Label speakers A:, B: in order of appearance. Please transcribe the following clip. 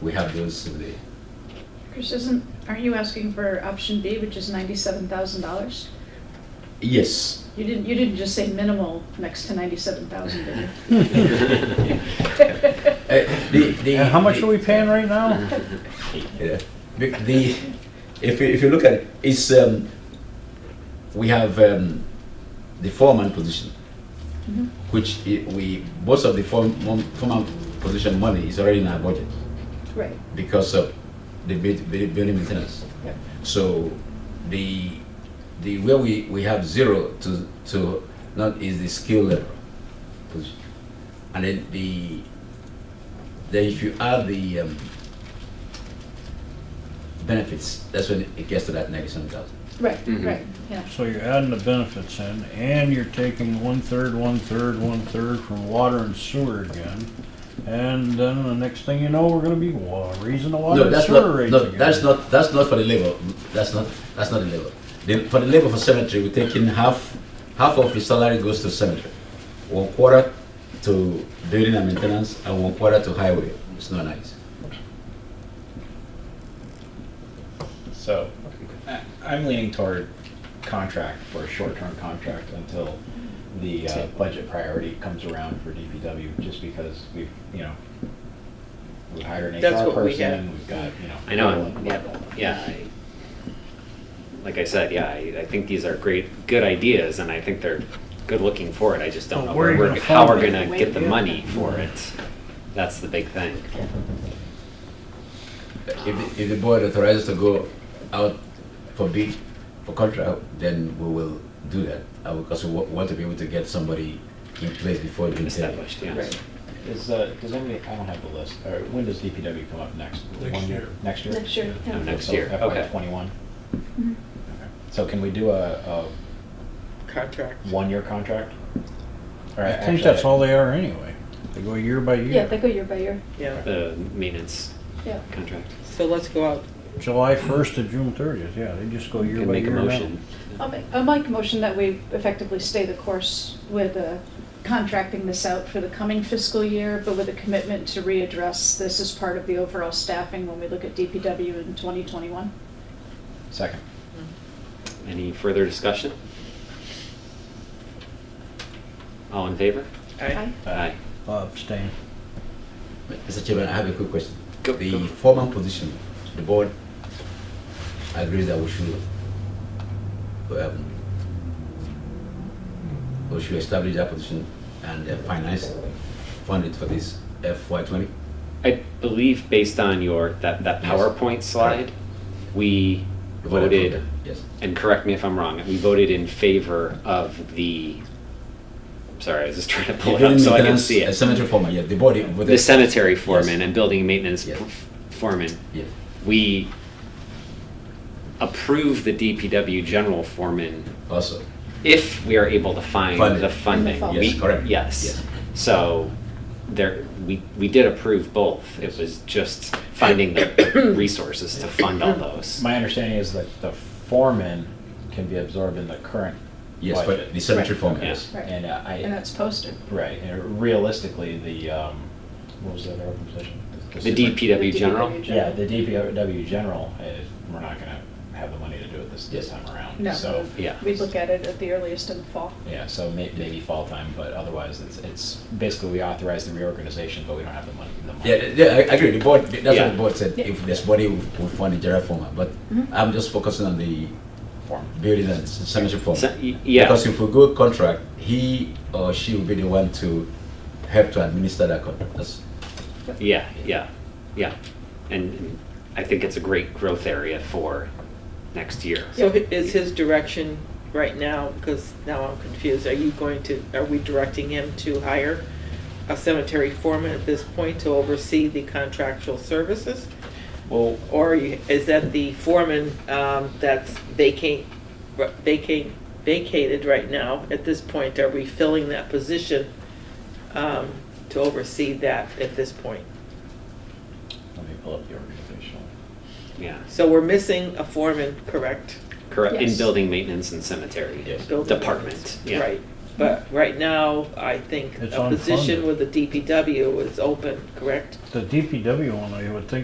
A: we have those, Cindy.
B: Chris, isn't, aren't you asking for option B, which is ninety-seven thousand dollars?
A: Yes.
B: You didn't, you didn't just say minimal next to ninety-seven thousand, did you? Mm-hmm.
A: Uh, the- the-
C: And how much are we paying right now?
A: Yeah. The, the- if, you, if you look at it, it's, um, we have um, the foreman position,
B: Mhm.
A: which i- we, most of the foreman, foreman position money is already in our budget
B: Right,
A: because of the bu- bu- building maintenance.
B: Yep.
A: So the, the where we, we have zero to, to not is the skill level position. And then the, then if you add the um, benefits, that's when it gets to that ninety-seven thousand.
B: right,
D: Mhm.
B: right, yeah.
C: So you're adding the benefits in, and you're taking one-third, one-third, one-third from water and sewer again. And then the next thing you know, we're gonna be wa- raising the water
A: No,
C: and
A: that's
C: sewer
A: not,
C: rates
A: no,
C: again.
A: that's not, that's not for the labor, that's not, that's not the labor. The- For the labor for cemetery, we're taking half, half of his salary goes to cemetery. One quarter to building and maintenance, and one quarter to highway, it's not nice.
E: So I- I'm leaning toward contract for a short-term contract until the uh, budget priority comes around for DPW, just because we've, you know, we hired an
D: That's
E: HR
D: what we had.
E: person, we've got, you know.
D: I know,
E: people
D: I'm-
E: and
D: yeah,
E: blah, blah, blah.
D: yeah. I- Like I said, yeah, I, I think these are great, good ideas, and I think they're good looking for it, I just don't
C: But
D: know
C: where
D: where
C: are you gonna
D: we're, how we're
C: find it?
D: gonna get the money for it. That's the big thing.
A: If, the- if the board authorizes to go out for bid, for contract, then we will do that. Uh, Because we wa- want to be able to get somebody in place before the winter.
D: Established, yes.
E: Is, uh, does anybody, I don't have the list, or when does DPW come up next?
F: Next
E: One
F: year.
E: Next year?
B: Next year,
D: No,
B: yeah.
D: Oh, next
E: So
D: year, okay.
E: FY twenty-one?
B: Mhm.
E: So can we do a, a
G: contract.
E: one-year contract? Or
C: I think
E: actually,
C: that's all they are anyway. They go year by
B: Yeah, they
C: year.
B: go year by year,
G: Yeah.
D: The maintenance
B: yeah.
D: contract.
G: So let's go out.
C: July first to June thirtieth, yeah, they just go year
D: Can
C: by
D: make a
C: year now.
D: motion.
B: I'll make, I'll make a motion that we effectively stay the course with uh, contracting this out for the coming fiscal year, but with a commitment to readdress this as part of the overall staffing when we look at DPW in 2021.
E: Second.
D: Any further discussion? All in favor?
B: Aye.
D: Aye.
C: Uh, Abstain.
A: Mr. Chairman, I have a quick question.
D: Go-
A: The
D: go.
A: foreman position, the board agrees that we should, um, we should establish that position and uh, finance, fund it for this FY twenty?
D: I believe based on your, that, that
A: Yes.
D: PowerPoint slide, we voted Oh,
A: Yes.
D: and correct me if I'm wrong, we voted in favor of the, sorry, I was just trying to pull it up so I can see
A: A
D: it.
A: cemetery foreman, yeah, the board voted.
D: The cemetery foreman and building maintenance
A: Yes.
D: p- foreman,
A: Yes.
D: we approve the DPW general foreman
A: Also,
D: if we are able to
A: Funding.
D: find the funding.
B: Yes,
D: Oh, We-
A: correct. Yes.
D: Yes. So there, we, we did approve both. It was just finding the resources to fund all those.
E: My understanding is that the foreman can be absorbed in the current
A: yes, but the
E: budget.
A: cemetery
B: Right.
A: foreman,
D: Yeah.
A: yes.
B: Right.
E: And uh,
B: And
E: I,
B: that's posted.
E: right, and realistically, the, um, what was the other open position?
D: The
E: super-
D: DPW general?
E: Yeah, the DPW general, uh, we're not gonna have the money to do it this, this time around.
B: No,
E: So,
D: Yeah.
B: we look at it at the earliest in the fall.
E: yeah, so may, maybe fall time, but otherwise, it's, it's, basically, we authorize the reorganization, but we don't have the money, the money.
A: Yeah, yeah, I I agree, the board, that's what
D: Yeah.
A: the board said,
B: Yeah.
A: if there's money, we'll we'll fund the general foreman, but
B: Mhm.
A: I'm just focusing on the
E: Form.
A: building and cemetery foreman.
D: So- y- Yeah.
A: Because if we go contract, he or she will be the one to help to administer that contract. That's,
D: Yeah, yeah, yeah. And I think it's a great growth area for next year.
G: So hi- is his direction right now, because now I'm confused, are you going to, are we directing him to hire a cemetery foreman at this point to oversee the contractual services?
E: Well,
G: Or you- is that the foreman um, that's vacate, vacate, vacated right now? At this point, are we filling that position um, to oversee that at this point?
E: let me pull up the organizational.
D: Yeah,
G: So we're missing a foreman, correct?
D: correct, in
B: Yes.
D: building maintenance and cemetery
A: Yes.
G: Building
D: department,
G: maintenance,
D: yeah.
G: Right, but right now, I think
C: It's
G: a position
C: unfunded.
G: with the DPW is open, correct?
C: The DPW one, I would think